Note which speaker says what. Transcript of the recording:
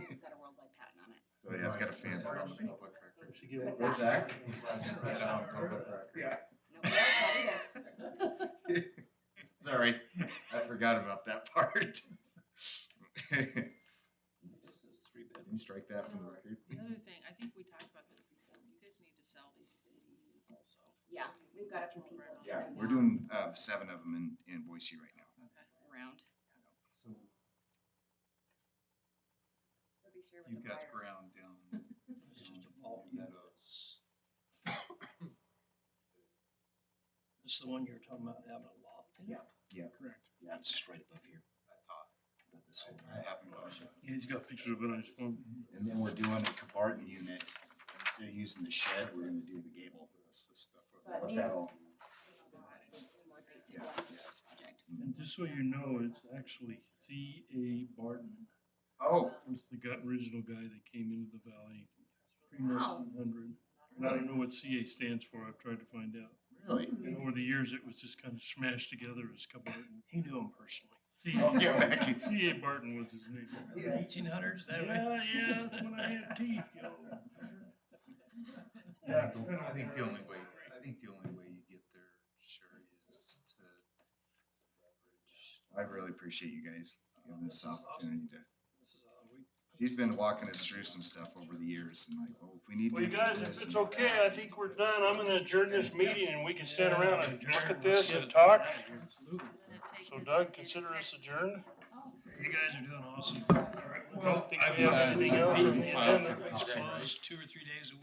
Speaker 1: it's got a fancy on the public record.
Speaker 2: Should give it-
Speaker 3: What's that?
Speaker 1: Put that on public record.
Speaker 2: Yeah.
Speaker 3: No, that's not either.
Speaker 1: Sorry, I forgot about that part. Can
Speaker 2: This is three bedrooms.
Speaker 1: you strike that from the record?
Speaker 4: Another thing, I think we talked about this before, you guys need to sell these babies also.
Speaker 3: Yeah, we've got a few people.
Speaker 4: Around.
Speaker 1: Yeah,
Speaker 3: right
Speaker 1: we're
Speaker 3: now.
Speaker 1: doing uh, seven of them in, in Boise right now.
Speaker 4: Okay.
Speaker 3: Around.
Speaker 2: So
Speaker 3: Nobody's here with
Speaker 2: you've
Speaker 3: the
Speaker 2: got
Speaker 3: fire.
Speaker 2: ground down, it's just a ball meadows.
Speaker 5: This is the one you were talking about having a loft in?
Speaker 3: Yeah.
Speaker 1: Yeah.
Speaker 5: Correct.
Speaker 1: Yeah, it's just right above here.
Speaker 2: I thought,
Speaker 5: About this whole.
Speaker 2: I haven't gone.
Speaker 6: He's got pictures of it on his phone.
Speaker 1: And then we're doing a Cabarton unit. Instead of using the shed, we're gonna do the gable.
Speaker 2: That's the stuff over
Speaker 3: But
Speaker 1: What
Speaker 3: these-
Speaker 1: that all-
Speaker 3: It's more basic one, this project.
Speaker 6: And just so you know, it's actually C. A. Barton.
Speaker 1: Oh,
Speaker 4: Um,
Speaker 6: was the gut original guy that came into the valley pre-nineteen hundred. And I don't know what CA stands for, I've tried to find out.
Speaker 1: really?
Speaker 6: And over the years, it was just kind of smashed together as Cabarton.
Speaker 5: He knew him personally.
Speaker 1: Oh, yeah,
Speaker 6: CA
Speaker 1: Becky.
Speaker 6: CA Barton was his name.
Speaker 5: Eighteen hundreds, that way.
Speaker 6: Yeah, yeah, that's when I had teeth, yo.
Speaker 2: I think the- I think the only way, I think the only way you get there, Sherry, is to leverage.
Speaker 1: I really appreciate you guys giving us the opportunity to.
Speaker 5: This is, uh, we-
Speaker 1: She's been walking us through some stuff over the years and like, well, if we need to.
Speaker 6: Well, you
Speaker 1: do
Speaker 6: guys,
Speaker 1: this
Speaker 6: if it's
Speaker 1: and
Speaker 6: okay, I think we're done. I'm gonna adjourn this meeting and we can stand around and look at this and
Speaker 5: Let's get it.
Speaker 6: talk.
Speaker 5: Absolutely.
Speaker 4: I'm gonna take
Speaker 6: So
Speaker 4: this and
Speaker 6: Doug,
Speaker 4: Oh, get it
Speaker 6: consider us
Speaker 4: texted.
Speaker 6: adjourned?
Speaker 5: You guys are doing awesome. All right,
Speaker 6: I
Speaker 5: well,
Speaker 6: don't think we have anything else on the
Speaker 2: Filed for
Speaker 6: agenda.
Speaker 2: copyright.
Speaker 5: Closed two or three days a week.